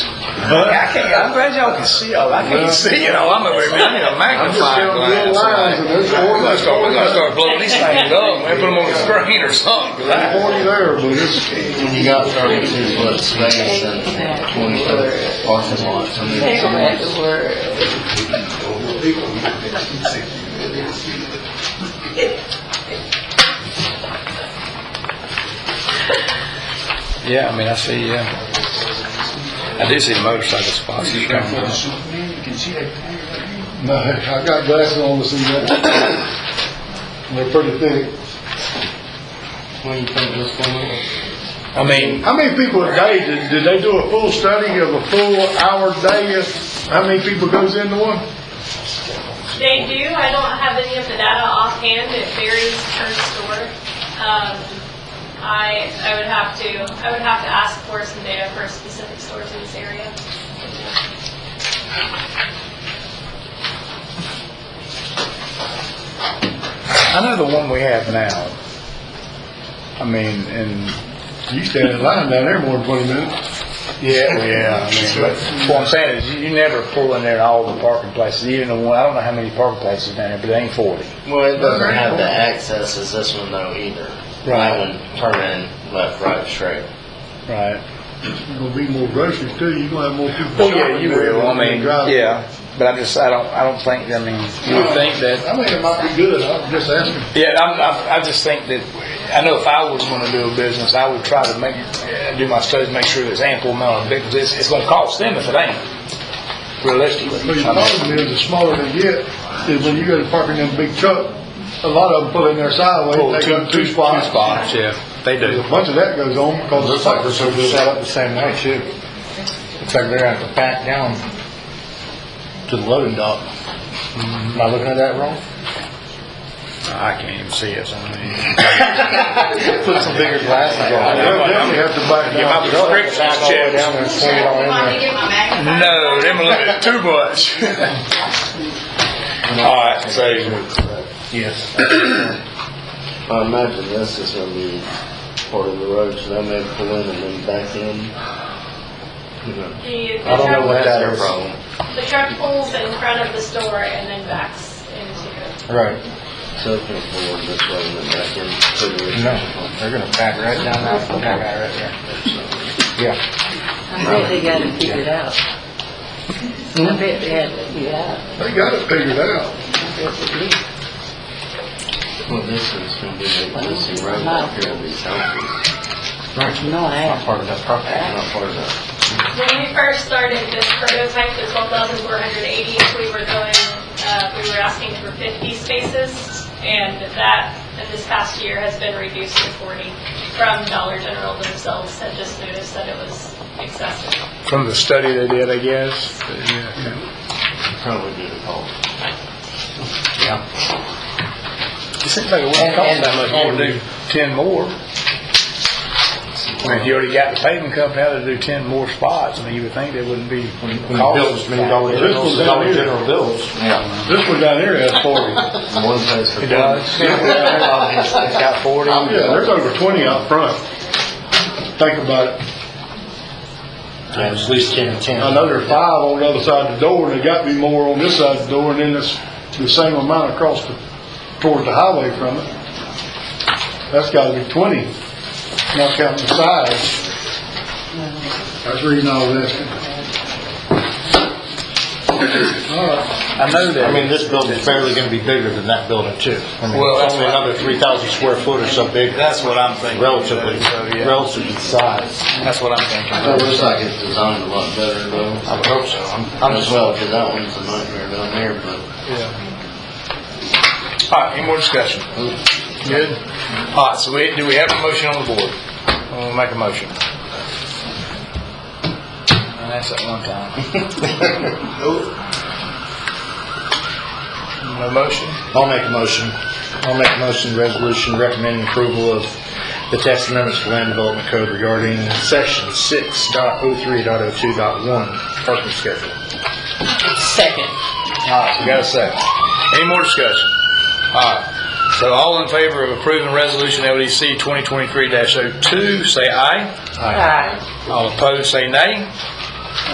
I can't, I'm glad y'all can see all, I can't see it all, I'm over here, man, I'm magnifying glass. lines, and there's We're forty, gonna start, we're gonna start blowing these things up, and put them on the screen or something, 'cause I- forty there, but it's, When you got thirty-two foot space and twenty foot parking lots, I mean, it's a lot. Yeah, I mean, I see, yeah. I do see the motorcycle spots. You don't no, I got glasses on to see that. And They're pretty thick. What do you think this one is? I mean, How many people a day, did, did they do a full study of a full hour day? of How many people goes into one? They do, I don't have any of the data offhand, it varies per store. Um, I, I would have to, I would have to ask for some data for specific stores in this area. I know the one we have now. I mean, and, You stand in line down there more than twenty minutes. yeah, well, yeah, I mean, but what I'm saying is, you- you never pull in there at all the parking places, even the one, I don't know how many parking places down there, but it ain't forty. Well, it doesn't have the access as this one though either. That one turn in left, right, straight. Right. There's gonna be more groceries too, you're gonna have more people. Well, Oh, yeah, shopping you there will, I than mean, driving. yeah, but I just, I don't, I don't think, I mean, you would think that I think it might be good, I'm just asking. Yeah, I'm, I'm, I just think that, I know if I was gonna do a business, I would try to make, uh, do my studies, make sure there's ample amount of, because it's, it's gonna cost them if it ain't, realistically. But the I mean, problem is, the smaller they get, is when you go to parking in a big truck, a lot of them pull in their sideways, pull they got two spots. yeah, they There's a bunch of that goes on because the cycle's so good. set up the same way too. Looks like they're having to back down to the loading dock. Am I looking at that wrong? I can't even see it, so I mean. Put some bigger glasses They on. definitely have to back Get my down. prescriptions Back all the way down checked. there and swing it all in there. No, them a little bit too much. All right, so, Yes. I imagine this is gonna be part of the road, so they may pull in and then back in. You know, The- the I don't know what that truck- That's their is. problem. The truck pulls in front of the store and then backs into it. Right, So if it's forward this way and then back in. pretty much. no, they're gonna back right down that, back out right there. Yeah, I bet they got it figured out. I bet they had it figured out. They got it figured out. Well, this is gonna be the existing road up here in these houses, No, I haven't. part of that property. not part of that. When we first started this prototype, the twelve thousand four hundred eighty, we were going, uh, we were asking for fifty spaces, and that, and this past year has been reduced to forty from Dollar General themselves, had just noticed that it was excessive. from the study they did, I guess, but yeah. Probably due to call. It seems like it wouldn't cost that much more to do ten more. I mean, if you already got the paving company out to do ten more spots, I mean, you would think they wouldn't be. When you build as many Dollar Generals, as Dollar General builds. Yeah. This one down here has forty. One place for. It does. It's got forty. Yeah, there's over twenty out front. Think about it. At least ten and ten. I know there's five on the other side of the door, and there got to be more on this side of the door, and then it's the same amount across the, towards the highway from it. That's gotta be twenty, not counting the sides. That's the reason I was asking. I know that. I mean, this building's barely gonna be bigger than that building too. I mean, Well, that's it's only what I- another three thousand square foot or so big That's what I'm thinking. relatively, So, yeah. relative to size. That's what I'm thinking. It looks like it's designed a lot better though, I hope so. I'm- I'm as just, well, cause that one's a nightmare down there, but All right, any more discussion? Good. All right, so we, do we have a motion on the board? We'll make a motion. That's at one time. No motion? I'll make a motion. I'll make a motion, resolution recommending approval of the text amendments to land development code regarding section six dot oh three dot oh two dot one, parking schedule. Second. All right, we got a second. Any more discussion? All right, so all in favor of approving resolution E LDC 2023-02, say aye. Aye. All opposed, say nay.